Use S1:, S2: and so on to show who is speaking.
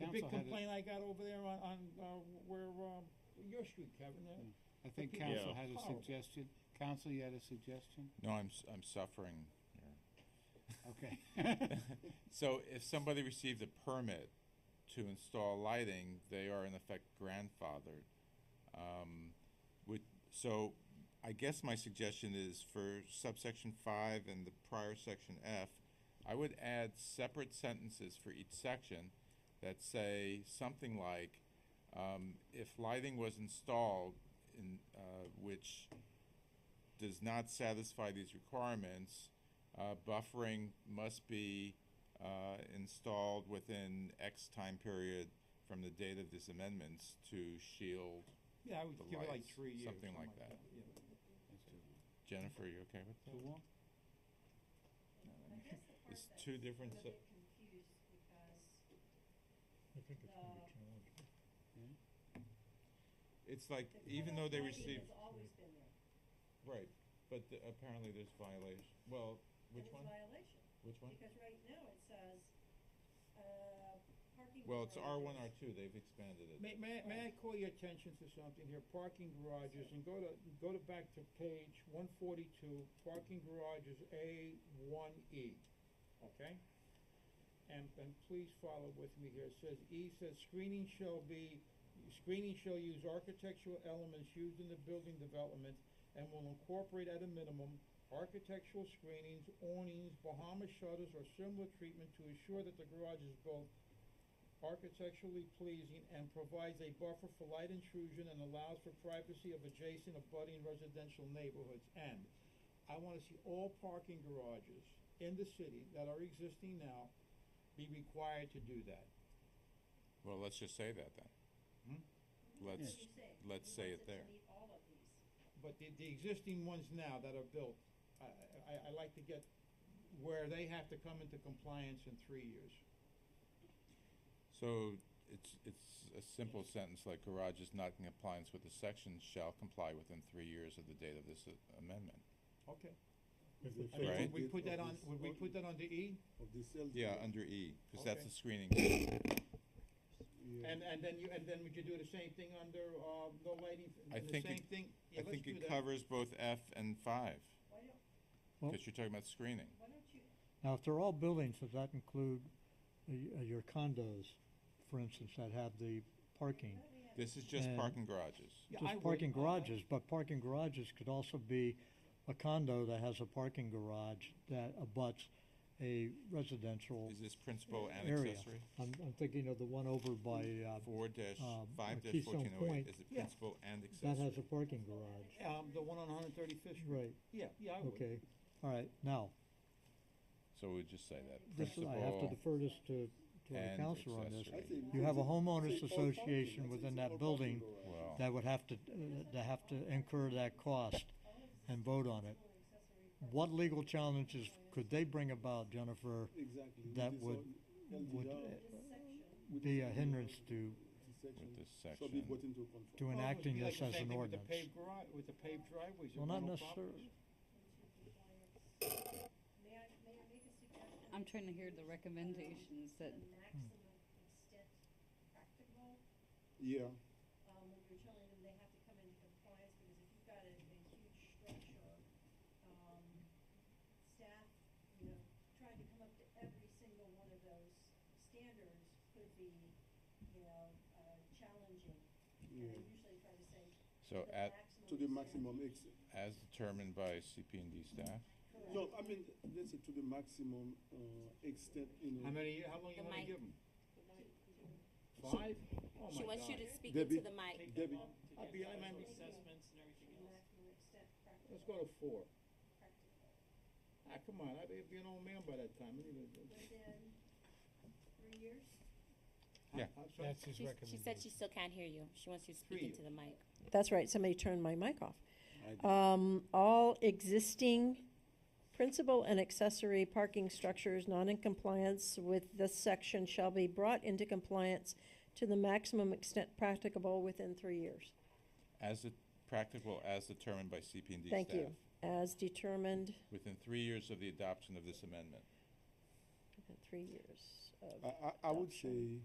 S1: The big
S2: council had it,
S1: complaint I got over there on, on, uh, where, um, your street, Kevin, uh, there.
S3: Mm.
S2: I think
S1: Yeah.
S2: council had a
S1: Horrible.
S2: suggestion, council, you had a suggestion?
S3: No, I'm, s- I'm suffering. here.
S2: Okay.
S3: So if somebody received a permit to install lighting, they are in effect grandfathered. Um, would, so I guess my suggestion is for subsection five and the prior section F, I would add separate sentences for each section that say something like, um, if lighting was installed in, uh, which does not satisfy these requirements, uh, buffering must be, uh, installed within X time period from the date of this amendments to shield.
S1: Yeah, I would
S3: The
S1: give it like
S3: lights,
S1: three years.
S3: something like that.
S1: Yeah.
S3: Jennifer, you okay with that?
S2: Too long?
S1: No, that
S4: I
S1: makes-
S4: guess the
S3: It's
S4: part that's
S3: two different
S4: a
S3: se-
S4: bit confused because
S5: I think it's gonna be
S4: Uh,
S5: challenging.
S3: It's like,
S4: the
S3: even though
S4: cutoff
S3: they
S4: lighting
S3: receive,
S4: has always been there.
S3: right, but the- apparently there's violation, well,
S4: and
S3: which
S4: it's
S3: one?
S4: violation,
S3: Which one?
S4: because right now it says, uh, parking.
S3: Well, it's R one, R
S4: garages.
S3: two, they've expanded it.
S1: May, may, may I call your attention to something here, parking garages, and go to, go to back to page one forty-two, parking garages A one E, okay? And, and please follow with me here, it says, E says screening shall be, screening shall use architectural elements used in the building development and will incorporate at a minimum architectural screenings, awnings, Bahama shutters, or similar treatment to ensure that the garage is built architecturally pleasing and provides a buffer for light intrusion and allows for privacy of adjacent abutting residential neighborhoods. And I wanna see all parking garages in the city that are existing now be required to do that.
S3: Well, let's just say that then.
S4: What do
S3: Let's-
S4: you say?
S3: let's
S4: You
S3: say
S4: want
S3: it there.
S4: to meet all of these.
S1: But the, the existing ones now that are built, I, I, I- I like to get where they have to come into compliance in three years.
S3: So it's, it's a simple sentence like garages not in compliance with the section shall comply within three years of the date of this uh, amendment.
S1: Okay.
S5: If
S1: I
S5: they
S1: mean,
S5: fail
S1: would
S3: Right.
S5: to
S1: we
S5: get
S1: put that
S5: all
S1: on,
S5: these-
S1: would we
S5: all
S1: put that under E?
S5: Of the sales.
S3: Yeah,
S6: Uh,
S5: tax,
S3: under E, cause that's
S1: Okay.
S3: a screening.
S5: yeah.
S1: And, and then you, and then would you do the same thing under, uh, no lighting,
S3: I
S1: the
S3: think it-
S1: same thing? Yeah,
S3: I
S1: let's
S3: think
S1: do
S3: it
S1: that.
S3: covers both F and five,
S4: Why don't,
S6: Well-
S3: because you're talking about screening.
S4: why don't you,
S6: Now, if they're all buildings, does that include uh, y- uh, your condos, for instance, that have the parking?
S4: why don't we have
S3: This is just
S6: And-
S3: parking garages.
S1: Yeah, I
S6: Just
S1: would-
S6: parking
S1: I- I-
S6: garages, but parking garages could also be a condo that has a parking garage that abuts a residential
S3: Is this principal and
S6: area.
S3: accessory?
S6: I'm, I'm thinking of the one over by, uh,
S3: Four dash,
S6: Um,
S3: five
S6: uh,
S3: dash
S6: Keystone
S3: fourteen oh eight,
S6: Point.
S3: is it
S1: Yeah.
S3: principal and
S6: that has a
S3: accessory?
S6: parking garage,
S1: Um, the one on one hundred thirty-fifth Street?
S6: right,
S1: Yeah, yeah, I would.
S6: okay, all right, now,
S3: So we just say that,
S6: this, I have to
S3: principal,
S6: defer this to, to our
S3: and
S6: counselor on this.
S3: accessory.
S5: I say
S6: You have a
S5: it's-
S6: homeowners
S5: it's all parking. I
S6: association
S5: say
S6: within
S5: it's
S6: that
S5: all parking
S6: building
S5: garage.
S3: well,
S6: that would have to, uh, that have to incur that cost
S4: all of these
S6: and vote on it.
S4: accessory
S6: What legal challenges could they bring about, Jennifer,
S5: Exactly. with
S6: that
S5: this
S6: would-
S5: all
S6: would,
S5: LDR,
S6: uh,
S4: apartments section,
S5: with
S6: be
S5: this
S6: a
S5: all
S6: hindrance to,
S5: this section
S3: with this
S5: Shall be brought
S3: section,
S5: into conform.
S6: to
S1: Well, it would
S6: enacting
S1: be like
S6: this
S1: the
S6: as
S1: same
S6: an
S1: thing with the
S6: ordinance?
S1: paved garage- With the paved driveways and
S6: Well, not
S1: rental properties.
S6: necessarily.
S4: into compliance. May I, may I make a suggestion?
S7: I'm trying to hear the recommendations that,
S4: The maximum extent practical
S5: Yeah,
S4: um, when you're telling them they have to come into compliance, because if you've got a, a huge structure, um, staff, you know, trying to come up to every single one of those standards could be, you know, uh, challenging. And
S5: yeah,
S4: they usually try to say
S3: so
S4: the
S3: at,
S4: maximum.
S5: to the
S4: extent.
S5: maximum extent.
S3: as determined by CP and D staff,
S4: Correct.
S5: No, I mean, let's say to the maximum, uh, extent, you know.
S1: How many, how long you
S8: The
S1: wanna
S8: mic.
S1: give them? Five? Oh
S8: She
S1: my
S8: wants you
S1: God.
S8: to speak into
S5: Debbie.
S8: the mic.
S5: Debbie,
S1: I'd be, I might be,
S9: assessments and everything
S4: The
S9: else.
S4: maximum extent practical.
S1: let's go to four.
S4: Practical.
S1: Ah, come on, I'd be be an old man by that time. I need to-
S4: Within three years.
S3: Yeah.
S1: I'm sorry.
S2: That's his
S8: She's- She said she
S2: recommendation.
S8: still can't hear you. She wants you to speak
S1: Three.
S8: into the mic.
S10: That's right, somebody turned my mic off. Um, all existing principal and accessory parking structures not in compliance with this section shall be brought into compliance to the maximum extent practicable within three years,
S3: as it, practical as determined by CP and D staff.
S10: Thank you. as determined
S3: Within three years of the adoption of this amendment.
S10: within three years of
S5: I, I, I would say,